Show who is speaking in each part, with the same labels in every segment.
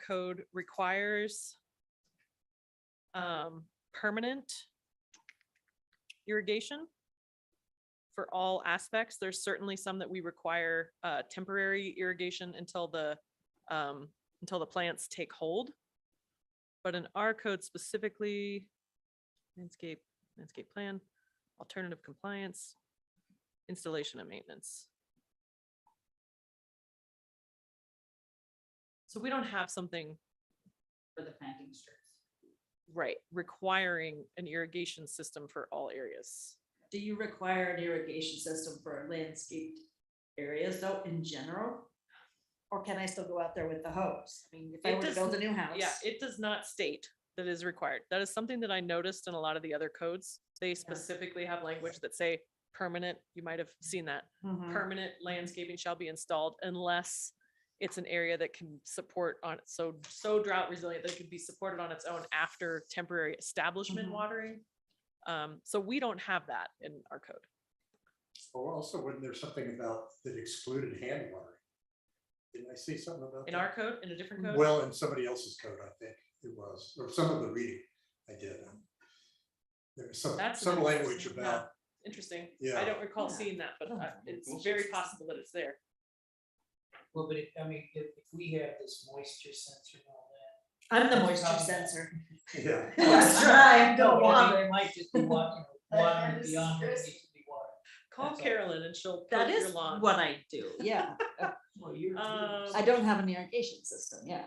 Speaker 1: code requires um, permanent irrigation for all aspects. There's certainly some that we require uh, temporary irrigation until the um, until the plants take hold. But in our code specifically, landscape, landscape plan, alternative compliance, installation and maintenance. So we don't have something,
Speaker 2: for the planting strips.
Speaker 1: right, requiring an irrigation system for all areas.
Speaker 2: Do you require an irrigation system for landscaped areas though in general? Or can I still go out there with the hose? I mean, if
Speaker 1: It
Speaker 2: I were to
Speaker 1: does
Speaker 2: build a new house.
Speaker 1: Yeah, it does not state that is required. That is something that I noticed in a lot of the other codes. They specifically have language that say permanent, you might have seen that.
Speaker 3: Mm-hmm.
Speaker 2: Mhm.
Speaker 1: Permanent landscaping shall be installed unless it's an area that can support on, so, so drought resilient that it could be supported on its own after temporary establishment
Speaker 2: Mhm.
Speaker 1: watering. Um, so we don't have that in our code.
Speaker 4: Or also, wasn't there something about that excluded hand watering? Didn't I see something about?
Speaker 1: In
Speaker 4: that?
Speaker 1: our code, in a different code?
Speaker 4: Well, in somebody else's code, I think it was, or some of the reading I did. um, There was some,
Speaker 1: That's
Speaker 4: some
Speaker 1: an
Speaker 4: language
Speaker 1: interesting-
Speaker 4: about,
Speaker 1: Interesting. I
Speaker 4: Yeah.
Speaker 1: don't recall
Speaker 2: Yeah.
Speaker 1: seeing that, but
Speaker 2: Oh,
Speaker 1: I- it's
Speaker 5: cool.
Speaker 1: very possible that it's there.
Speaker 5: Well, but if, I mean, if, if we have this moisture sensor and all that.
Speaker 2: I'm the moisture sensor.
Speaker 4: yeah,
Speaker 2: It's dry, I'm
Speaker 5: No,
Speaker 2: going
Speaker 5: I mean,
Speaker 2: water.
Speaker 5: It might just be watering, watering
Speaker 2: That is-
Speaker 5: beyond what needs to be watered.
Speaker 1: Call
Speaker 5: That's all.
Speaker 1: Carolyn and she'll
Speaker 2: That
Speaker 1: poke your
Speaker 2: is
Speaker 1: lawn.
Speaker 2: what I do, yeah.
Speaker 5: Well, you're.
Speaker 1: Um,
Speaker 2: I don't have an irrigation system, yeah.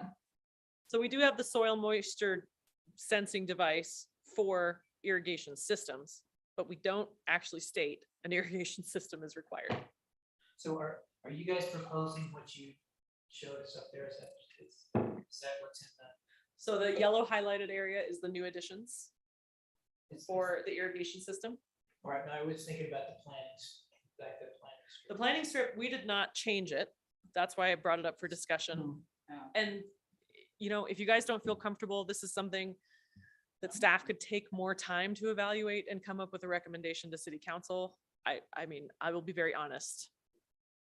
Speaker 1: So we do have the soil moisture sensing device for irrigation systems, but we don't actually state an irrigation system is required.
Speaker 5: So are, are you guys proposing what you showed us up there? Is that, is, is that what's in the?
Speaker 1: So the yellow highlighted area is the new additions
Speaker 5: is-
Speaker 1: for the irrigation system.
Speaker 5: All right, no, I was thinking about the plans, like the plans.
Speaker 1: The planning strip, we did not change it. That's why I brought it up for discussion. And, you know, if you guys don't feel comfortable, this is something that staff could take more time to evaluate and come up with a recommendation to city council. I, I mean, I will be very honest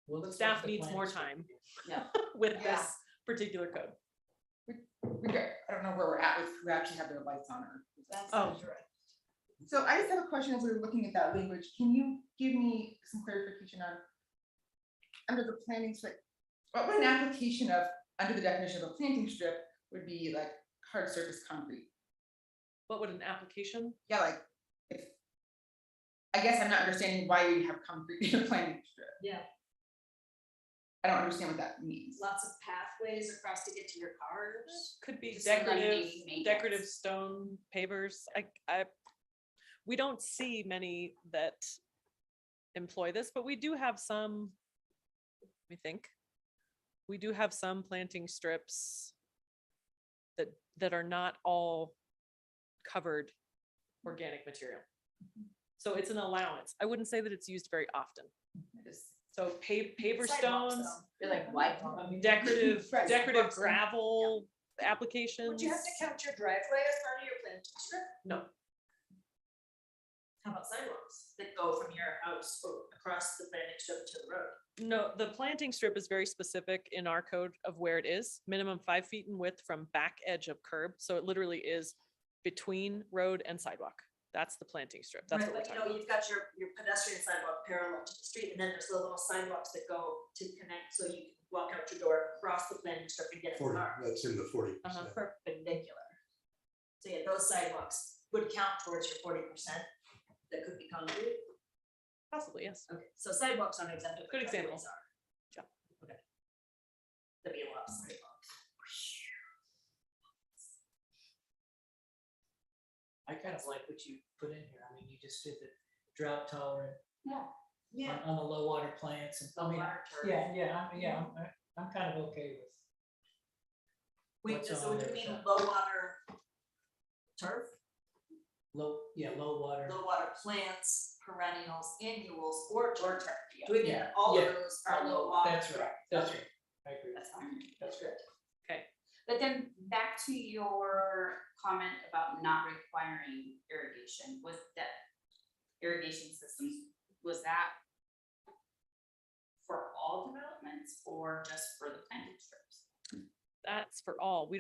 Speaker 5: Well, it looks like
Speaker 1: staff
Speaker 5: the
Speaker 1: needs
Speaker 5: plan
Speaker 1: more
Speaker 5: is-
Speaker 1: time.
Speaker 2: Yeah.
Speaker 1: with
Speaker 6: Yeah.
Speaker 1: this particular code.
Speaker 6: we go- I don't know where we're at with who actually have their lights on or.
Speaker 1: Oh.
Speaker 6: So I just have a question as we were looking at that language. Can you give me some clarification on? Under the planting strip, what would an application of, under the definition of a planting strip, would be like hard surface concrete?
Speaker 1: What would an application?
Speaker 6: Yeah, like if. I guess I'm not understanding why you have concrete in a planting strip.
Speaker 3: Yeah.
Speaker 6: I don't understand what that means.
Speaker 3: lots of pathways across to get to your cars.
Speaker 1: Could be
Speaker 3: Just some
Speaker 1: decorative,
Speaker 3: lightning maintenance.
Speaker 1: decorative stone pavers. I, I, we don't see many that employ this, but we do have some, we think. We do have some planting strips that, that are not all covered organic material. So it's an allowance. I wouldn't say that it's used very often.
Speaker 6: I just-
Speaker 1: So pa- paver
Speaker 3: Sidewalks,
Speaker 1: stones,
Speaker 3: though. You're like, why?
Speaker 1: decorative,
Speaker 6: Right,
Speaker 1: decorative
Speaker 6: box them.
Speaker 1: gravel applications.
Speaker 3: Would you have to count your driveway as part of your planting strip?
Speaker 1: No.
Speaker 3: How about sidewalks that go from your house o- across the planting strip to the road?
Speaker 1: No, the planting strip is very specific in our code of where it is, minimum five feet in width from back edge of curb. So it literally is between road and sidewalk. That's the planting strip. That's
Speaker 3: Right,
Speaker 1: what we're
Speaker 3: But you
Speaker 1: talking
Speaker 3: know,
Speaker 1: about.
Speaker 3: you've got your, your pedestrian sidewalk parallel to the street, and then there's the little sidewalks that go to connect, so you can walk out your door, cross the planting strip and get in the
Speaker 4: forty,
Speaker 3: car.
Speaker 4: that's in the forty percent.
Speaker 1: Uh-huh.
Speaker 3: perpendicular. So yeah, those sidewalks would count towards your forty percent that could be concrete.
Speaker 1: Possibly, yes.
Speaker 3: Okay, so sidewalks aren't exempt. but
Speaker 1: Good example.
Speaker 3: driveways are.
Speaker 1: Yeah.
Speaker 3: Okay. There'd be a lot of sidewalks.
Speaker 5: I kind of like what you put in here. I mean, you just did the drought tolerant on,
Speaker 3: Yeah.
Speaker 5: on the low water plants and, I mean, yeah, yeah, I'm, yeah, I'm, I'm kind of okay with.
Speaker 3: Wait,
Speaker 5: what's
Speaker 3: so
Speaker 5: on
Speaker 3: do
Speaker 5: there,
Speaker 3: you mean
Speaker 5: so-
Speaker 3: low water turf,
Speaker 5: Low, yeah, low water.
Speaker 3: low water plants, perennials, annuals, or turf? Do we mean
Speaker 5: Yeah,
Speaker 3: all of
Speaker 5: yeah.
Speaker 3: those are low water?
Speaker 5: That's right, that's right. I agree.
Speaker 3: That's fine.
Speaker 5: That's good.
Speaker 7: But then back to your comment about not requiring irrigation, was that irrigation systems, was that for all developments or just for the planted strips?
Speaker 1: That's for all. We